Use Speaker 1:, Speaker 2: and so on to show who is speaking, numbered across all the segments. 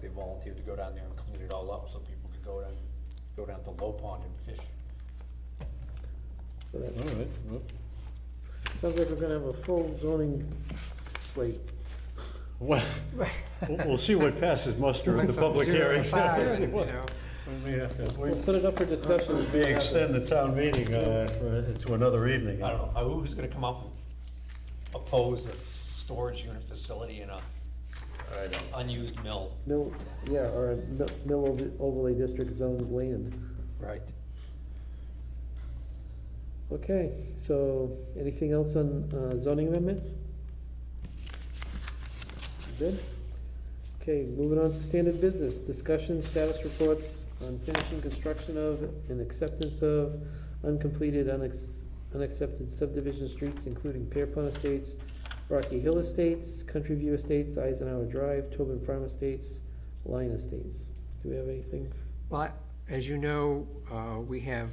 Speaker 1: they volunteered to go down there and clean it all up so people could go down, go down to Low Pond and fish.
Speaker 2: So that-
Speaker 3: All right, well,
Speaker 2: Sounds like we're gonna have a full zoning slate.
Speaker 3: well, we'll, we'll see what passes muster at
Speaker 4: Went
Speaker 3: the
Speaker 4: from
Speaker 3: public
Speaker 4: zero to
Speaker 3: hearing.
Speaker 4: five,
Speaker 3: We
Speaker 4: you know.
Speaker 3: may have to
Speaker 2: We'll
Speaker 3: wait-
Speaker 2: put it up for discussion. and see
Speaker 3: we
Speaker 2: what happens.
Speaker 3: extend the town meeting, uh, for, to another evening.
Speaker 1: I don't know, who's gonna come up and oppose a storage unit facility in a
Speaker 3: I don't.
Speaker 1: unused mill?
Speaker 2: Mill, yeah, or a mi- mill over- overlay district zoned land.
Speaker 1: Right.
Speaker 2: Okay, so anything else on uh, zoning amendments? Good? Okay, moving on to standard business, discussion, status reports on finishing construction of and acceptance of uncompleted, unex- unaccepted subdivision streets, including Pierpont Estates, Rocky Hill Estates, Country View Estates, Eisenhower Drive, Tobin Farm Estates, Lyon Estates. Do we have anything?
Speaker 4: Well, as you know, uh, we have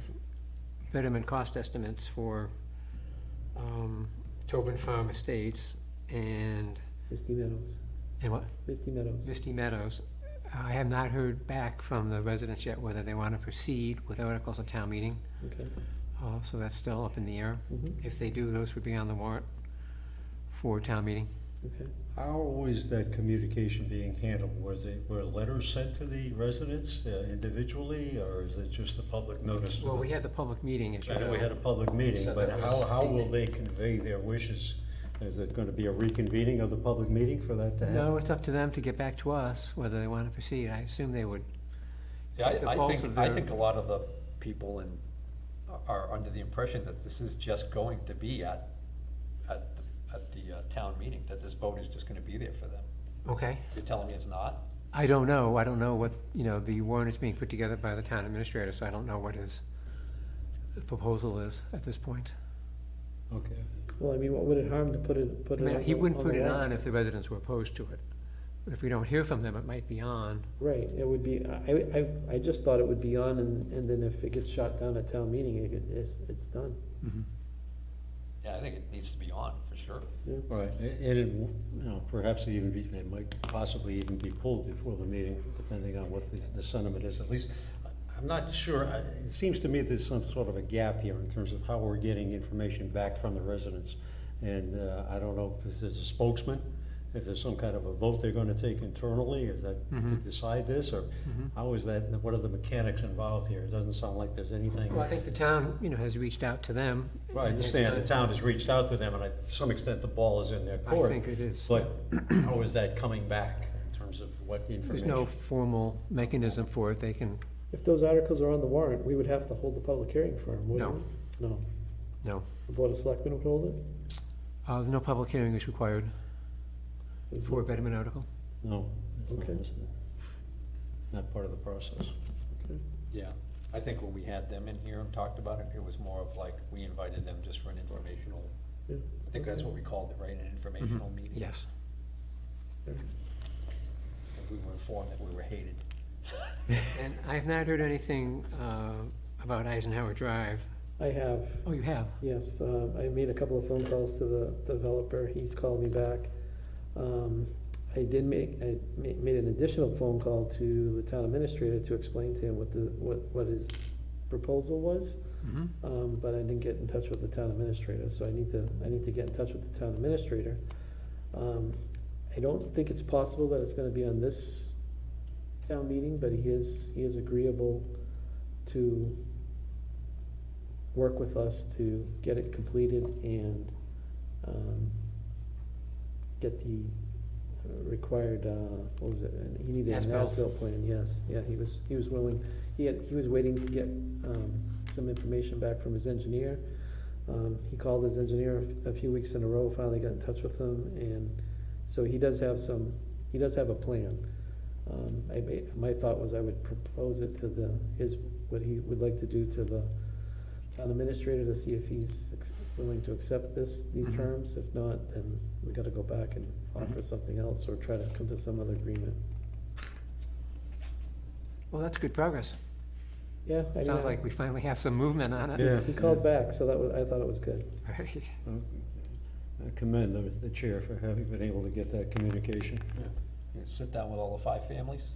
Speaker 4: betterment cost estimates for um, Tobin Farm Estates and,
Speaker 2: Misty Meadows,
Speaker 4: and what,
Speaker 2: Misty Meadows.
Speaker 4: Misty Meadows. I have not heard back from the residents yet whether they want to proceed with articles at town meeting,
Speaker 2: Okay.
Speaker 4: uh, so that's still up in the air.
Speaker 2: Mhm.
Speaker 4: If they do, those would be on the warrant for town meeting.
Speaker 2: Okay.
Speaker 3: How was that communication being handled? Was it, were letters sent to the residents uh, individually, or is it just a public notice? to
Speaker 4: Well,
Speaker 3: the-
Speaker 4: we had the public meeting, as you
Speaker 3: I
Speaker 4: know.
Speaker 3: know we had a public meeting,
Speaker 4: So
Speaker 3: but
Speaker 4: that
Speaker 3: how,
Speaker 4: was-
Speaker 3: how will they convey their wishes? Is it gonna be a reconvening of the public meeting for that to happen?
Speaker 4: No, it's up to them to get back to us whether they want to proceed. I assume they would.
Speaker 1: See, I,
Speaker 4: Take the
Speaker 1: I
Speaker 4: pulse
Speaker 1: think,
Speaker 4: of
Speaker 1: I
Speaker 4: their-
Speaker 1: think a lot of the people in, are under the impression that this is just going to be at, at, the- at the uh, town meeting, that this vote is just gonna be there for them.
Speaker 4: Okay.
Speaker 1: You're telling me it's not?
Speaker 4: I don't know. I don't know what, you know, the warrant is being put together by the town administrator, so I don't know what his proposal is at this point.
Speaker 3: Okay.
Speaker 2: Well, I mean, what would it harm to put it,
Speaker 4: I
Speaker 2: put it on
Speaker 4: mean, he
Speaker 2: the-
Speaker 4: wouldn't
Speaker 2: the
Speaker 4: put it
Speaker 2: warrant?
Speaker 4: on if the residents were opposed to it. If we don't hear from them, it might be on.
Speaker 2: Right, it would be, I, I, I just thought it would be on, and, and then if it gets shot down at town meeting, it, get- it's, it's done.
Speaker 1: Yeah, I think it needs to be on, for sure.
Speaker 3: Right, and it, w- you know, perhaps even be, it might possibly even be pulled before the meeting, depending on what the- the sentiment is, at least. I- I'm not sure, I- it seems to me there's some sort of a gap here in terms of how we're getting information back from the residents. And uh, I don't know if there's a spokesman, if there's some kind of a vote they're gonna take internally, is that to decide this, or how is that, what are the mechanics involved here? It doesn't sound like there's anything.
Speaker 4: Well, I think the town, you know, has reached out to them.
Speaker 3: Well, I understand, the town has reached out to them, and I- to some extent, the ball is in their court.
Speaker 4: think it is.
Speaker 3: But how is that coming back in terms of what
Speaker 4: There's
Speaker 3: information?
Speaker 4: no formal mechanism for it. They can,
Speaker 2: If those articles are on the warrant, we would have to hold the public hearing for them,
Speaker 4: No.
Speaker 2: wouldn't we? No.
Speaker 4: no.
Speaker 2: The Board of Selectmen would hold it?
Speaker 4: Uh, no public hearing is required for a betterment article.
Speaker 3: No, it's not
Speaker 2: Okay.
Speaker 3: listed. Not part of the process.
Speaker 1: Yeah, I think when we had them in here and talked about it, it was more of like, we invited them just for an informational,
Speaker 2: Yeah.
Speaker 1: I think that's what we called it, right, an informational meeting?
Speaker 4: Yes.
Speaker 1: And We were informed that we were hated.
Speaker 4: And I have not heard anything uh, about Eisenhower Drive.
Speaker 2: I have,
Speaker 4: Oh, you have?
Speaker 2: yes, uh, I made a couple of phone calls to the developer, he's called me back. Um, I did make, I ma- made an additional phone call to the town administrator to explain to him what the, what, what his proposal was.
Speaker 4: Mhm.
Speaker 2: Um, but I didn't get in touch with the town administrator, so I need to, I need to get in touch with the town administrator. Um, I don't think it's possible that it's gonna be on this town meeting, but he is, he is agreeable to work with us to get it completed and, um, get the required, uh, what was it, and he needed an
Speaker 4: As-built.
Speaker 2: as-built plan, yes, yeah, he was, he was willing, he had, he was waiting to get, um, some information back from his engineer. Um, he called his engineer a a few weeks in a row, finally got in touch with him, and so he does have some, he does have a plan. Um, I, ma- my thought was I would propose it to the, his, what he would like to do to the town administrator to see if he's ex- willing to accept this, these
Speaker 4: Mhm.
Speaker 2: terms. If not, then we gotta go back and
Speaker 4: Mm-hmm.
Speaker 2: offer something else or try to come to some other agreement.
Speaker 4: Well, that's good progress.
Speaker 2: Yeah. I mean,
Speaker 4: Sounds
Speaker 2: I-
Speaker 4: like we finally have some movement on it.
Speaker 3: Yeah.
Speaker 2: He called back, so that was, I thought it was good.
Speaker 4: Right.
Speaker 3: I commend the- the chair for having been able to get that communication.
Speaker 1: You know, Sit down with all the five families?